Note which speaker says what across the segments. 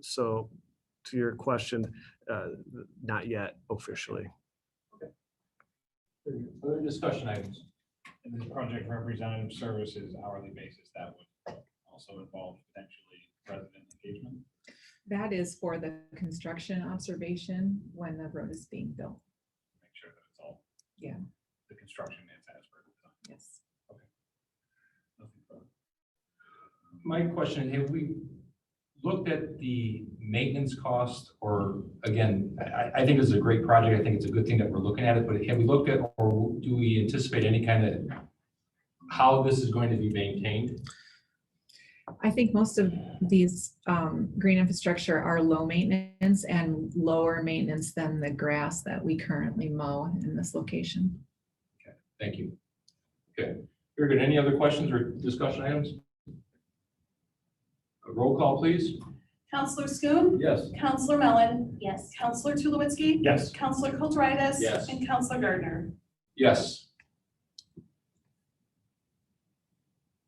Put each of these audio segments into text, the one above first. Speaker 1: So to your question, uh, not yet officially.
Speaker 2: Other discussion items?
Speaker 3: And the project representative services hourly basis, that would also involve potentially resident engagement.
Speaker 4: That is for the construction observation when the road is being built.
Speaker 3: Make sure that it's all.
Speaker 4: Yeah.
Speaker 3: The construction is as per. design.
Speaker 4: Yes.
Speaker 3: Nothing further.
Speaker 2: My question, have we looked at the maintenance cost or, again, I- I, I think this is a great project. I think it's a good thing that we're looking at it, but have we looked at or do we anticipate any kind of how this is going to be maintained?
Speaker 4: I think most of these um, green infrastructure are low maintenance and lower maintenance than the grass that we currently mow in this location.
Speaker 2: Thank you. Okay, very good. Any other questions or discussion items? A Roll call, please.
Speaker 5: Counselor Schoen.
Speaker 2: Yes.
Speaker 5: Counselor Mellon.
Speaker 6: Yes.
Speaker 5: Counselor Tulowitzki.
Speaker 3: Yes.
Speaker 5: Counselor Kulturitis.
Speaker 2: Yes.
Speaker 5: And Counselor Gardner.
Speaker 2: Yes.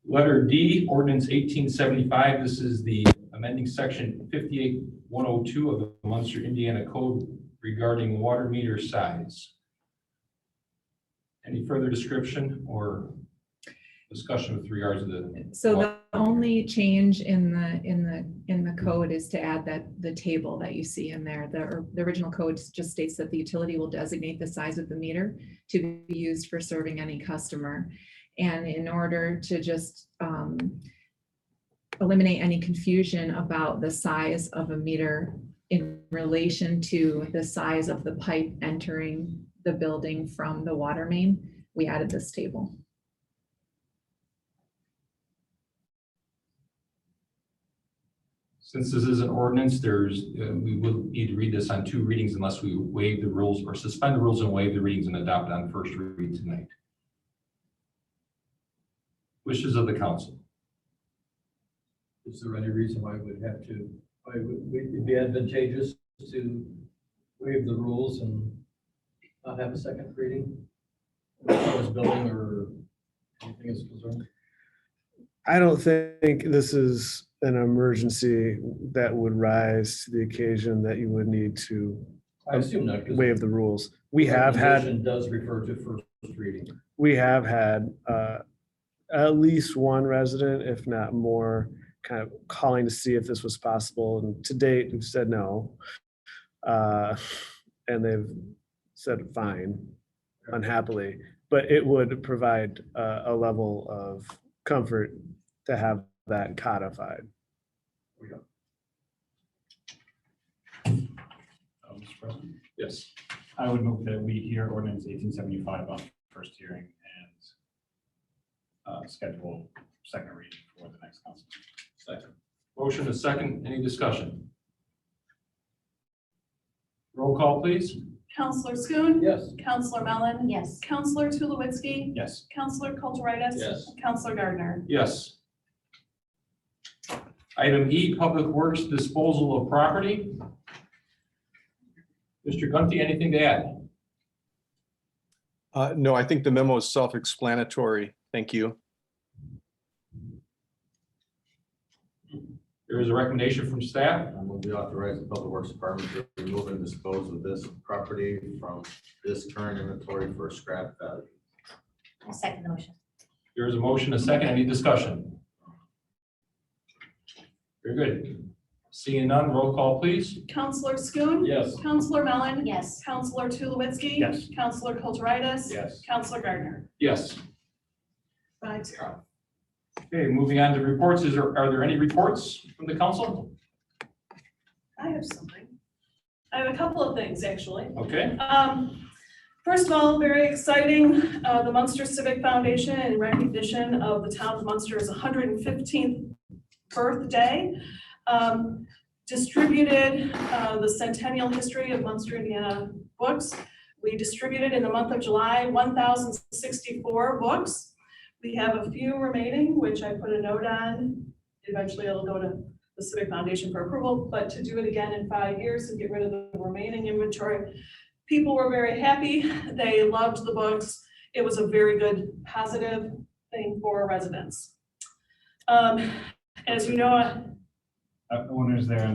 Speaker 2: Letter D, ordinance eighteen seventy-five, this is the amending section fifty-eight one oh two of the Munster, Indiana Code regarding water meter size. Any further description or discussion with regards to the,
Speaker 4: So the only change in the, in the, in the code is to add that the table that you see in there. The, or- the original code just states that the utility will designate the size of the meter to be used for serving any customer. And in order to just um, eliminate any confusion about the size of a meter in relation to the size of the pipe entering the building from the water main, we added this table.
Speaker 2: since this is an ordinance, there's, uh, we will need to read this on two readings unless we waive the rules or suspend the rules and waive the readings and adopt on first read tonight. Wishes of the council.
Speaker 7: Is there any reason why we'd have to, why would would it be advantageous to waive the rules and not have a second reading? As far as building or anything is concerned?
Speaker 1: I don't think this is an emergency that would rise to the occasion that you would need to
Speaker 7: I assume not. 'cause
Speaker 1: waive the rules. We have had,
Speaker 7: recommendation Does refer to first reading.
Speaker 1: we have had uh, at least one resident, if not more, kind of calling to see if this was possible. And to date, we've said no. Uh, And they've said fine, unhappily. But it would provide uh, a level of comfort to have that codified.
Speaker 3: Uh, Mr. President,
Speaker 2: Yes.
Speaker 3: I would move that we hear ordinance eighteen seventy-five on first hearing and uh, schedule second reading for the next council.
Speaker 2: Second. Motion is second. Any discussion? Roll call, please.
Speaker 5: Counselor Schoen.
Speaker 7: Yes.
Speaker 5: Counselor Mellon.
Speaker 6: Yes.
Speaker 5: Counselor Tulowitzki.
Speaker 3: Yes,
Speaker 5: Counselor Kulturitis.
Speaker 7: Yes.
Speaker 5: and Counselor Gardner.
Speaker 2: Yes. Item E, Public Works Disposal of Property. Mr. Gunty, anything to add?
Speaker 8: Uh, no, I think the memo is self-explanatory. Thank you.
Speaker 2: There is a recommendation from staff.
Speaker 9: I will be authorized the Public Works Department to remove and dispose of this property from this current inventory for scrap value.
Speaker 6: I'll second the motion.
Speaker 2: There is a motion, a second. Any discussion? Very good. Seeing none, roll call, please.
Speaker 5: Counselor Schoen.
Speaker 7: Yes.
Speaker 5: Counselor Mellon.
Speaker 6: Yes.
Speaker 5: Counselor Tulowitzki.
Speaker 3: Yes.
Speaker 5: Counselor Kulturitis.
Speaker 3: yes.
Speaker 5: Counselor Gardner.
Speaker 2: Yes.
Speaker 5: Five zero.
Speaker 2: Okay, moving on to reports. Is there, are there any reports from the council?
Speaker 5: I have something. I have a couple of things, actually.
Speaker 2: Okay.
Speaker 5: Um, First of all, very exciting, uh, the Munster Civic Foundation in recognition of the town of Munster's 115th birthday um, distributed uh, the Centennial History of Munster, Indiana books. We distributed in the month of July 1,064 books. We have a few remaining, which I put a note on. Eventually, it'll go to the Civic Foundation for approval, but to do it again in five years and get rid of the remaining inventory people were very happy. They loved the books. It was a very good, positive thing for residents. Um, As you know, I-
Speaker 3: Uh, When is there an